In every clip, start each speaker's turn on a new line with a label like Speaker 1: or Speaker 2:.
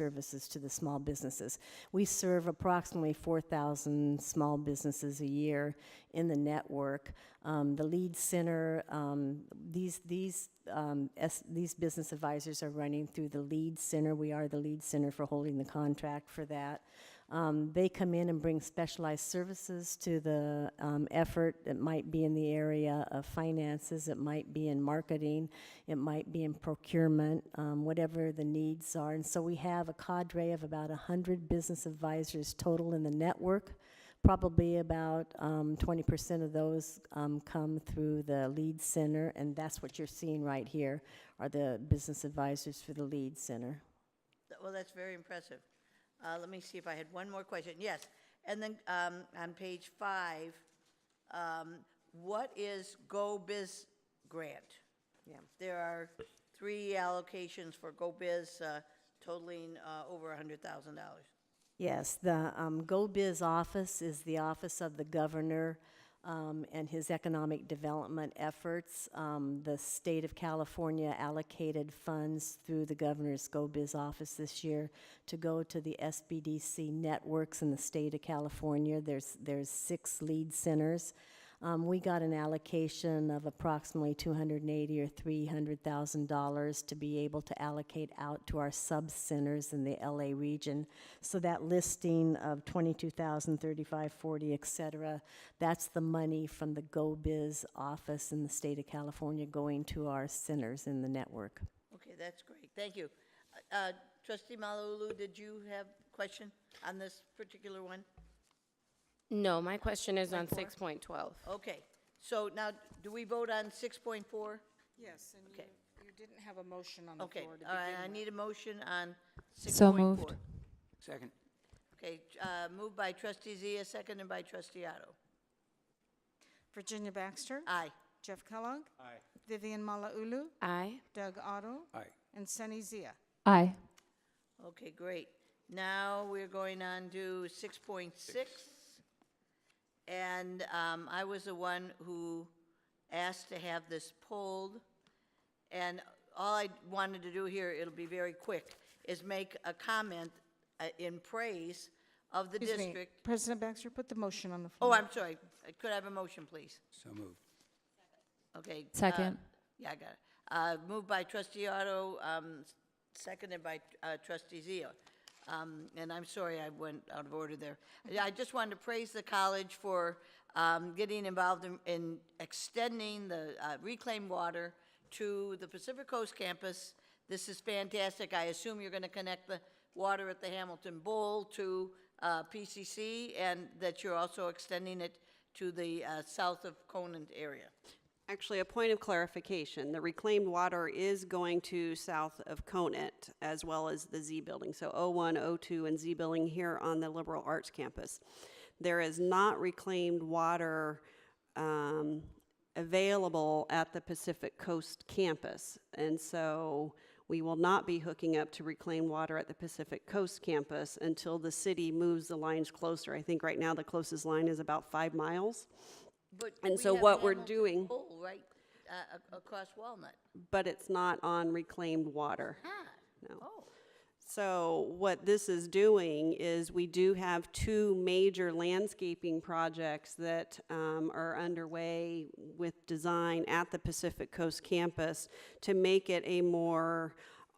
Speaker 1: services to the small businesses. We serve approximately 4,000 small businesses a year in the network. Um, The lead center, um, these, these, um, S- these business advisors are running through the lead center. We are the lead center for holding the contract for that. Um, They come in and bring specialized services to the um, effort. It might be in the area of finances, it might be in marketing, it might be in procurement, um, whatever the needs are. And so we have a cadre of about 100 business advisors total in the network. Probably about um, 20% of those um, come through the lead center, and that's what you're seeing right here are the business advisors for the lead center.
Speaker 2: Th- Well, that's very impressive. Uh, Let me see if I had one more question. Yes, and then um, on page five, um, what is Go Biz grant?
Speaker 1: Yeah.
Speaker 2: There are three allocations for Go Biz uh, totaling uh, over $100,000.
Speaker 1: Yes, the um, Go Biz office is the office of the governor um, and his economic development efforts. Um, the state of California allocated funds through the governor's Go Biz office this year to go to the SBDC networks in the state of California. There's there's six lead centers. Um, we got an allocation of approximately two hundred and eighty or three hundred thousand dollars to be able to allocate out to our sub centers in the LA region. So that listing of twenty-two thousand, thirty-five, forty, et cetera, that's the money from the Go Biz office in the state of California going to our centers in the network.
Speaker 2: Okay, that's great, thank you. Uh, uh, Trustee Malulu, did you have a question on this particular one?
Speaker 3: No, my question is on six point twelve.
Speaker 2: Okay, so now, do we vote on 6.4?
Speaker 4: Yes, and you,
Speaker 2: Okay.
Speaker 4: you didn't have a motion on the
Speaker 2: Okay,
Speaker 4: floor to
Speaker 2: all right, I
Speaker 4: begin with.
Speaker 2: need a motion on 6.4.
Speaker 5: So moved.
Speaker 6: Second.
Speaker 2: Okay, uh, moved by trustee Zia, seconded by trustee Otto.
Speaker 4: Virginia Baxter?
Speaker 2: Aye.
Speaker 4: Jeff Kellogg?
Speaker 6: Aye.
Speaker 4: Vivian Malauulu?
Speaker 3: Aye.
Speaker 4: Doug Otto?
Speaker 6: Aye.
Speaker 4: And Sunny Zia?
Speaker 5: Aye.
Speaker 2: Okay, great. Now we're going on to 6.6. And um, I was the one who asked to have this pulled. And all I wanted to do here, it'll be very quick, is make a comment uh, in praise of the
Speaker 4: Excuse me,
Speaker 2: district.
Speaker 4: President Baxter, put the motion on the
Speaker 2: Oh,
Speaker 4: floor.
Speaker 2: I'm sorry. Could I have a motion, please?
Speaker 6: So moved.
Speaker 2: Okay. uh,
Speaker 5: Second.
Speaker 2: Yeah, I got it. Uh, Moved by trustee Otto, um, s- seconded by uh, trustee Zia. Um, And I'm sorry, I went out of order there. Yeah, I just wanted to praise the college for um, getting involved in- in extending the uh, reclaimed water to the Pacific Coast campus. This is fantastic. I assume you're going to connect the water at the Hamilton Bowl to uh, PCC, and that you're also extending it to the uh, south of Conant area.
Speaker 7: Actually, a point of clarification, the reclaimed water is going to south of Conant as well as the Z Building, so O one, O two, and Z Building here on the Liberal Arts Campus. There is not reclaimed water, um, available at the Pacific Coast Campus. And so we will not be hooking up to reclaimed water at the Pacific Coast Campus until the city moves the lines closer. I think right now the closest line is about five miles.
Speaker 2: But
Speaker 7: And
Speaker 2: we
Speaker 7: so
Speaker 2: have
Speaker 7: what we're
Speaker 2: Hamilton
Speaker 7: doing-
Speaker 2: Bowl right uh, ac- across Walnut.
Speaker 7: but it's not on reclaimed water. No.
Speaker 2: Oh,
Speaker 7: So what this is doing is we do have two major landscaping projects that um, are underway with design at the Pacific Coast campus to make it a more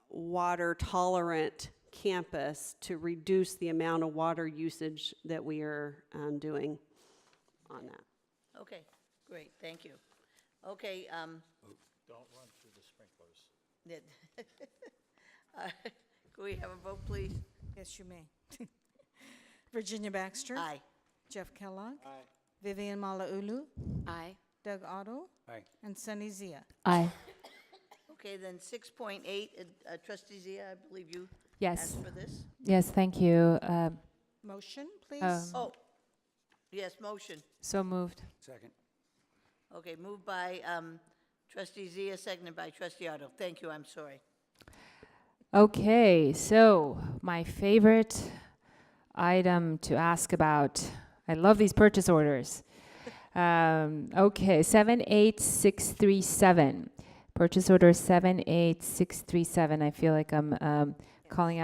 Speaker 7: water tolerant campus to reduce the amount of water usage that we are um, doing on that.
Speaker 2: okay, great, thank you. Okay, um. Don't run through the sprinklers. Can we have a vote, please?
Speaker 4: Yes, you may. Virginia Baxter?
Speaker 2: Aye.
Speaker 4: Jeff Kellogg? Aye. Vivian Malauulu?
Speaker 3: Aye.
Speaker 4: Doug Otto?
Speaker 6: Aye.
Speaker 4: And Sunny Zia?
Speaker 5: Aye.
Speaker 2: Okay, then six point eight, uh, trustee Zia, I believe you
Speaker 5: Yes.
Speaker 2: asked for this?
Speaker 5: Yes, thank you. Um,
Speaker 4: Motion, please?
Speaker 5: Um,
Speaker 2: Oh, yes, motion.
Speaker 5: So moved.
Speaker 6: Second.
Speaker 2: Okay, moved by, um, trustee Zia, seconded by trustee Otto. Thank you, I'm sorry.
Speaker 5: Okay, so my favorite item to ask about. I love these purchase orders. Um, okay, 78637. Purchase order 78637. I feel like I'm um, calling out.